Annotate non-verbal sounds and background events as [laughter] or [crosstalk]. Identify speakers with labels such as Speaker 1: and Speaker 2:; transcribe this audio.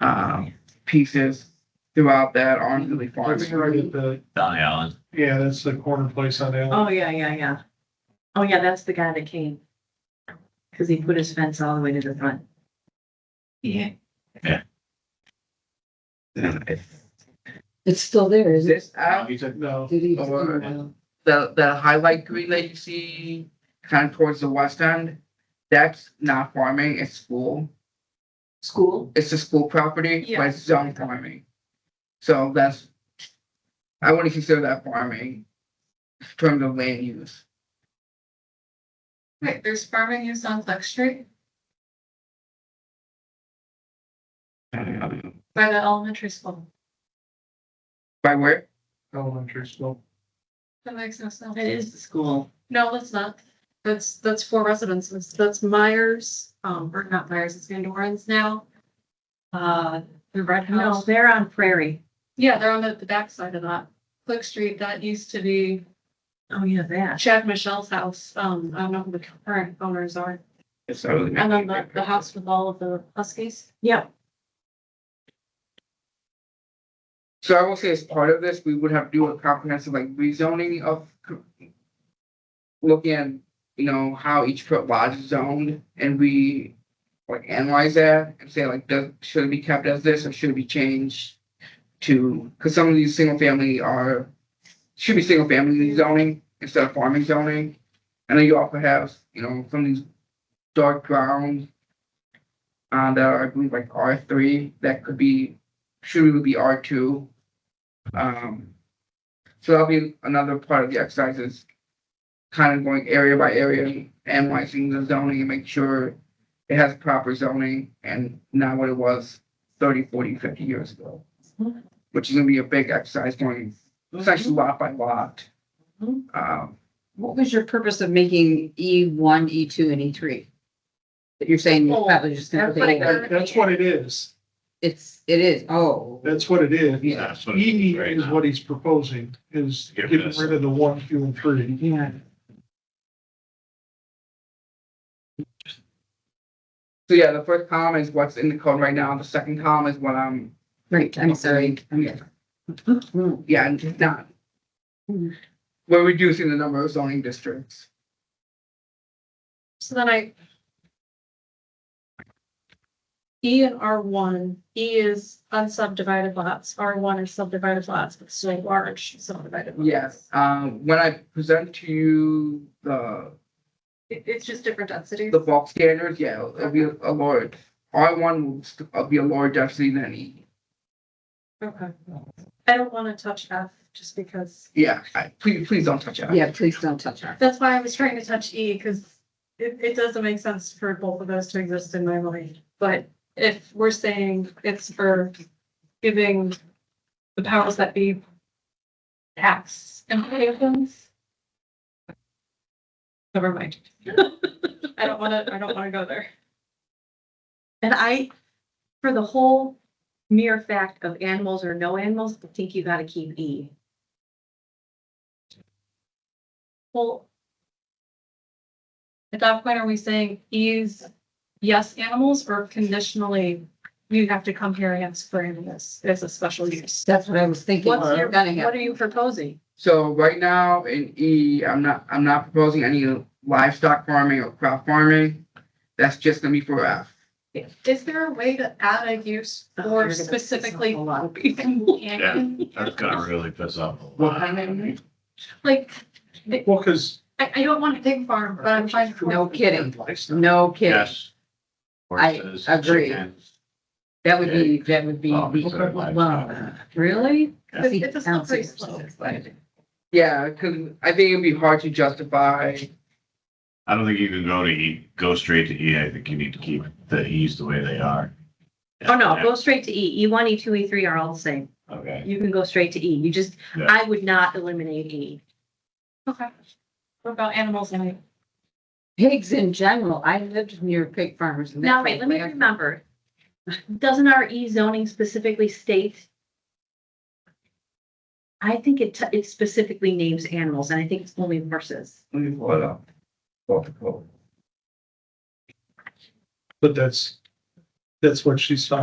Speaker 1: um, pieces throughout that on Lily Farm.
Speaker 2: That's right at the,
Speaker 3: Donny Allen.
Speaker 2: yeah, that's the corner place on Allen.
Speaker 4: Oh, yeah, yeah, yeah. Oh, yeah, that's the guy that came. Cause he put his fence all the way to the front.
Speaker 1: Yeah.
Speaker 3: Yeah.
Speaker 5: It's still there,
Speaker 1: Is
Speaker 5: is
Speaker 1: this
Speaker 5: it?
Speaker 1: out,
Speaker 2: No,
Speaker 5: Did he?
Speaker 1: Or-
Speaker 5: Wow.
Speaker 1: the, the highlight green that you see kind of towards the west end? That's not farming, it's school.
Speaker 4: School?
Speaker 1: It's a school property, but
Speaker 4: Yeah.
Speaker 1: it's zone farming. So that's, I wouldn't consider that farming in terms of land use.
Speaker 6: Wait, there's farming use on Flex Street
Speaker 1: By
Speaker 6: by the elementary school.
Speaker 1: where?
Speaker 2: elementary school.
Speaker 6: That makes no sense.
Speaker 4: It is the school.
Speaker 6: No, that's not. That's, that's four residences. That's Myers, um, or not Myers, it's Van Doren's now. Uh, the Red
Speaker 4: No,
Speaker 6: House.
Speaker 4: they're on Prairie.
Speaker 6: Yeah, they're on the, the backside of that. Flex Street, that used to be
Speaker 4: Oh, yeah, that.
Speaker 6: Chad Michelle's house. Um, I don't know who the current owners are.
Speaker 1: It's over there.
Speaker 6: And then the, the house with all of the huskies.
Speaker 4: Yep.
Speaker 1: So I will say as part of this, we would have to do a comprehensive like rezoning of. co- Looking at, you know, how each pro- lodge is zoned and we like analyze that and say like, does, should it be kept as this or should it be changed? To, cause some of these single family are, should be single family zoning instead of farming zoning. And then you also have, you know, some of these dark grounds. Uh, that are, I believe like R three, that could be should we be R two? Um, so that'll be another part of the exercise is kind of going area by area, analyzing the zoning and make sure it has proper zoning and not what it was 30, 40, 50 years ago. Which is gonna be a big exercise going essentially lot by lot.
Speaker 4: Mhm.
Speaker 1: Um,
Speaker 5: What was your purpose of making E one, E two, and E three? That you're saying you're
Speaker 6: Oh,
Speaker 5: probably just gonna,
Speaker 6: that's what I
Speaker 5: pay-
Speaker 6: got.
Speaker 2: That- That's what it is.
Speaker 5: it's, it is, oh.
Speaker 2: That's what it is.
Speaker 1: yeah,
Speaker 3: That's what it
Speaker 2: E
Speaker 3: right
Speaker 2: is
Speaker 3: now.
Speaker 2: what he's proposing, is
Speaker 3: Get
Speaker 2: getting
Speaker 3: this.
Speaker 2: rid of the one, two, and three.
Speaker 5: Yeah.
Speaker 1: so yeah, the first column is what's in the code right now, the second column is what I'm
Speaker 5: Right, I'm sorry.
Speaker 1: Yeah. Yeah, and not.
Speaker 5: Hmm.
Speaker 1: We're reducing the number of zoning districts.
Speaker 6: So then I. E and R one, E is unsubdivided lots, R one is subdivided lots, but still large subdivided. lots.
Speaker 1: Yes, um, when I present to you the,
Speaker 6: It, it's just different densities.
Speaker 1: the bulk standards, yeah, it'll be a large. R one will st- uh, be a lower density than E.
Speaker 6: Okay. I don't wanna touch F just because,
Speaker 1: Yeah, I, please, please don't touch it.
Speaker 5: Yeah, please don't touch her.
Speaker 6: that's why I was trying to touch E, cause it, it doesn't make sense for both of those to exist in my mind. But if we're saying it's for giving the powers that be tax implications. Never mind. [laughs] I don't wanna, I don't wanna go there.
Speaker 4: And I, for the whole mere fact of animals or no animals, I think you gotta keep E.
Speaker 6: Well. At that point, are we saying use yes animals or conditionally, you have to come here and ask for animals as a special use?
Speaker 5: That's what I was thinking.
Speaker 6: What's your,
Speaker 5: Gonna
Speaker 6: what
Speaker 5: happen.
Speaker 6: are you proposing?
Speaker 1: So right now in E, I'm not, I'm not proposing any livestock farming or crop farming. That's just gonna be for F.
Speaker 6: Is there a way to add a use
Speaker 4: Oh, you're
Speaker 6: or
Speaker 4: gonna piss
Speaker 6: specifically?
Speaker 4: off a lot of
Speaker 6: companion?
Speaker 3: That's gonna really piss off a
Speaker 1: What
Speaker 3: lot.
Speaker 1: kind of name?
Speaker 6: [laughs] Like,
Speaker 2: Well, because.
Speaker 6: I, I don't want a pig farm, but I'm trying to.
Speaker 5: No kidding. No kidding.
Speaker 3: Yes.
Speaker 5: I
Speaker 3: Horses,
Speaker 5: agree.
Speaker 3: chickens.
Speaker 5: That would be, that would be.
Speaker 3: Oh, we said livestock.
Speaker 5: Wow. Really?
Speaker 3: Yeah.
Speaker 6: It's- it's a slippery
Speaker 5: Ounces or
Speaker 6: slope.
Speaker 5: something.
Speaker 1: Yeah, cause I think it'd be hard to justify,
Speaker 3: I don't think you can go to E, go straight to E. I think you need to keep the E's the way they are.
Speaker 4: Oh, no, go straight to E. E one, E two, E three are all the same.
Speaker 3: Okay.
Speaker 4: You can go straight to E. You just,
Speaker 3: Yeah.
Speaker 4: I would not eliminate E.
Speaker 6: Okay. What about animals? and-
Speaker 5: Pigs in general. I lived near pig farmers. and
Speaker 4: Now,
Speaker 5: that's
Speaker 4: wait, let me
Speaker 5: where-
Speaker 4: remember. Doesn't our E zoning specifically state? I think it, t- it specifically names animals and I think it's only horses.
Speaker 1: let me pull it up. Pull up the code.
Speaker 2: But that's, that's what she's talking